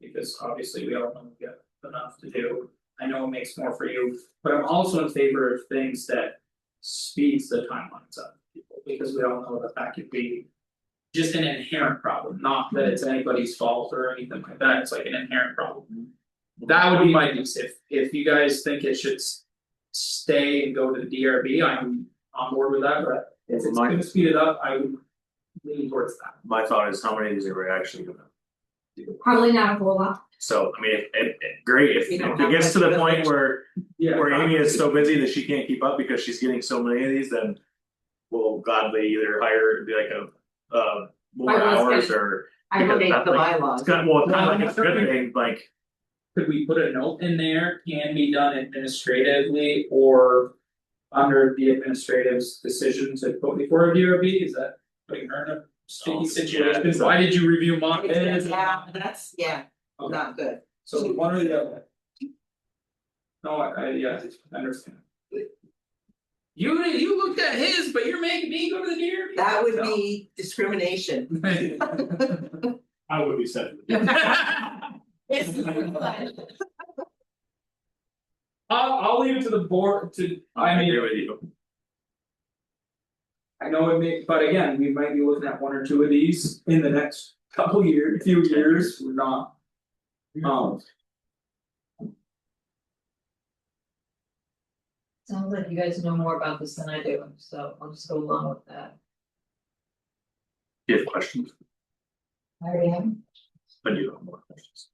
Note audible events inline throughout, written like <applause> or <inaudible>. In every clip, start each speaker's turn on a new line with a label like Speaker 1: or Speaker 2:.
Speaker 1: because obviously we all know we got enough to do. I know it makes more for you, but I'm also in favor of things that speeds the timelines up, because we all know that that could be. Just an inherent problem, not that it's anybody's fault or anything like that, it's like an inherent problem. That would be my piece, if if you guys think it should s- stay and go to the DRB, I'm on board with that, but if it's
Speaker 2: My-
Speaker 1: gonna speed it up, I would lean towards that.
Speaker 2: My thought is how many of these are we actually gonna,
Speaker 3: Probably not a whole lot.
Speaker 2: so I mean, if if if- great, if
Speaker 4: We
Speaker 2: if
Speaker 4: don't
Speaker 2: it
Speaker 4: have
Speaker 2: gets to the
Speaker 4: much
Speaker 2: point where
Speaker 1: Yeah.
Speaker 2: where Amy is so busy that she can't keep up because she's getting so many of these, then. We'll gladly either hire it'd be like a uh more
Speaker 3: I was
Speaker 2: hours or
Speaker 3: I
Speaker 2: Because
Speaker 3: would,
Speaker 4: Update the
Speaker 2: like-
Speaker 4: bylaws.
Speaker 2: it's kind of, well, it's kind
Speaker 1: Well,
Speaker 2: of like it's a good thing, like.
Speaker 1: Could we put a note in there, can be done administratively or under the administrative's decision to put before a DRB, is that putting her in a
Speaker 2: Oh,
Speaker 1: sticky
Speaker 2: yeah.
Speaker 1: situation? Why did you review my minutes?
Speaker 4: Yeah, that's, yeah,
Speaker 1: Okay.
Speaker 4: not good.
Speaker 1: So one or the other. No, I I yeah, I understand. You you looked at his, but you're making me go to the DRB?
Speaker 4: That would be discrimination.
Speaker 1: No.
Speaker 2: I would be set.
Speaker 1: <laughs>
Speaker 4: <laughs>
Speaker 1: I'll I'll leave it to the board to, I
Speaker 2: I
Speaker 1: mean.
Speaker 2: agree with you,
Speaker 1: I know it may, but again, we might be looking at one or two of these in the next couple year, few years, we're not. Um,
Speaker 5: Sounds like you guys know more about this than I do, so I'll just go along with that.
Speaker 2: Do you have questions,
Speaker 5: I already have.
Speaker 2: but you have more questions.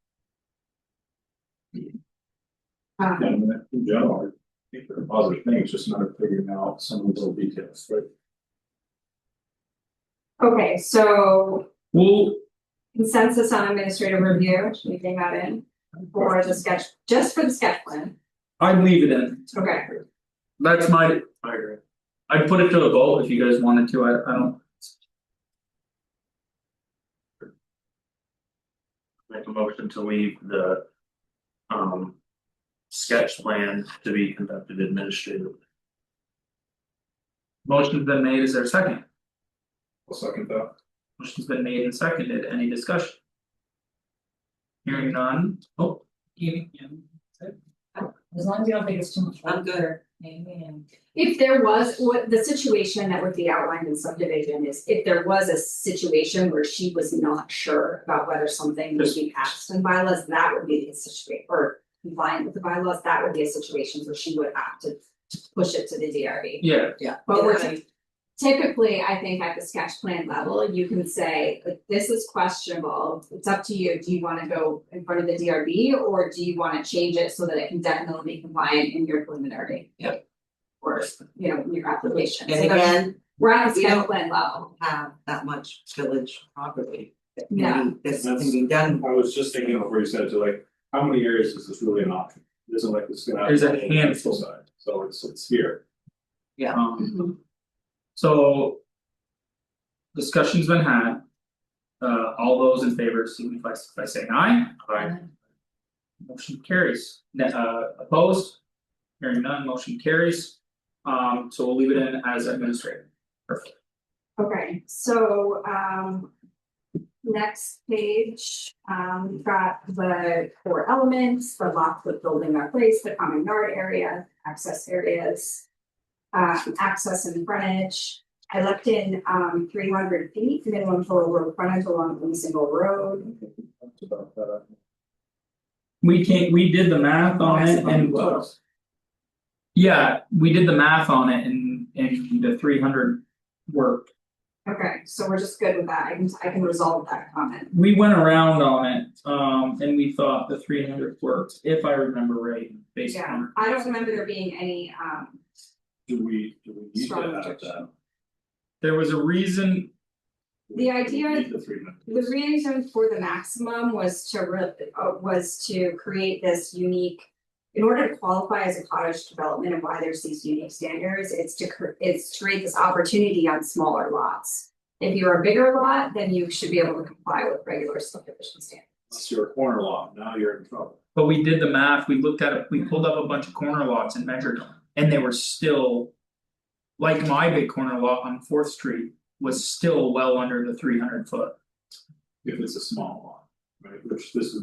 Speaker 3: uh,
Speaker 6: Yeah, I mean, in general, I think they're positive things, just not figuring out some of the little details, right?
Speaker 3: okay, so
Speaker 1: well,
Speaker 3: consensus on administrative review, should we bring that in? For the sketch, just for the sketch plan,
Speaker 1: I'd leave it in,
Speaker 3: okay,
Speaker 1: that's my,
Speaker 2: I agree.
Speaker 1: I'd put it to the vote if you guys wanted to, I I don't.
Speaker 2: Make a motion to leave the. Um. Sketch plan to be conducted administratively.
Speaker 1: Motion's been made, is there a second?
Speaker 6: I'll second that.
Speaker 1: Motion's been made and seconded, any discussion? Hearing none, oh. Amy, yeah.
Speaker 5: As long as you don't think it's too much.
Speaker 4: I'm good.
Speaker 5: work, Maybe and.
Speaker 3: if there was, what the situation that would be outlined in subdivision is, if there was a situation where she was not sure about whether something would be passed in bylaws, that would be the situation, or compliant with the bylaws, that would be a situation where she would have to to push it to the E. DRB.
Speaker 1: Yeah,
Speaker 4: Yeah.
Speaker 3: But we're-
Speaker 4: Yeah, I-
Speaker 3: typically, I think at the sketch plan level, you can say, like, this is questionable, it's up to you, do you wanna go in front of the DRB? Or do you wanna change it so that it can definitely be compliant in your preliminary?
Speaker 4: Yep.
Speaker 3: Or, you know, your application, so
Speaker 4: And
Speaker 3: there's-
Speaker 4: again,
Speaker 3: we're at the
Speaker 4: we
Speaker 3: sketch
Speaker 4: don't-
Speaker 3: plan level,
Speaker 4: have that much village property. that can be-
Speaker 3: Yeah.
Speaker 4: This can be done.
Speaker 6: I was just thinking before you said it, to like, how many areas is this really an option? It Isn't like this is gonna. happen
Speaker 1: There's a
Speaker 6: on the
Speaker 1: handful.
Speaker 6: side, So it's it's here,
Speaker 1: um.
Speaker 4: Mhm.
Speaker 1: So. Discussion's been had. Uh, all those in favor signify by saying aye,
Speaker 2: Alright,
Speaker 1: motion carries, Ne- uh, opposed. Hearing none, motion carries. Um, so we'll leave it in as administrative.
Speaker 3: okay, so, um. Next page, um, we've got the core elements, the lots with building or place, the common yard area, access areas. Um, access and frontage, I left in, um, three hundred feet minimum total road frontage along any single road.
Speaker 6: Talked about that.
Speaker 1: We can't, we did the math on it and. Yeah, we did the math on it and and the three hundred worked.
Speaker 3: Okay, so we're just good with that, I can, I can resolve that comment,
Speaker 1: We went around on it, um, and we thought the three hundred worked, if I remember right, based
Speaker 3: yeah,
Speaker 1: on.
Speaker 3: I don't remember there being any, um,
Speaker 6: Do we, do we need to
Speaker 3: Strong
Speaker 6: have that?
Speaker 3: objection.
Speaker 1: There was a reason
Speaker 3: The idea-
Speaker 6: We Need the three minutes.
Speaker 3: The reason for the maximum was to re- uh, was to create this unique. In order to qualify as a cottage development and why there's these unique standards, it's to cr- it's to create this opportunity on smaller lots. If you're a bigger lot, then you should be able to comply with regular subdivision standards.
Speaker 6: It's your corner lot, now you're in trouble.
Speaker 1: But we did the math, we looked at it, we pulled up a bunch of corner lots and measured them, and they were still. Like my big corner lot on Fourth Street was still well under the three hundred foot.
Speaker 6: If it's a small lot, right, which this is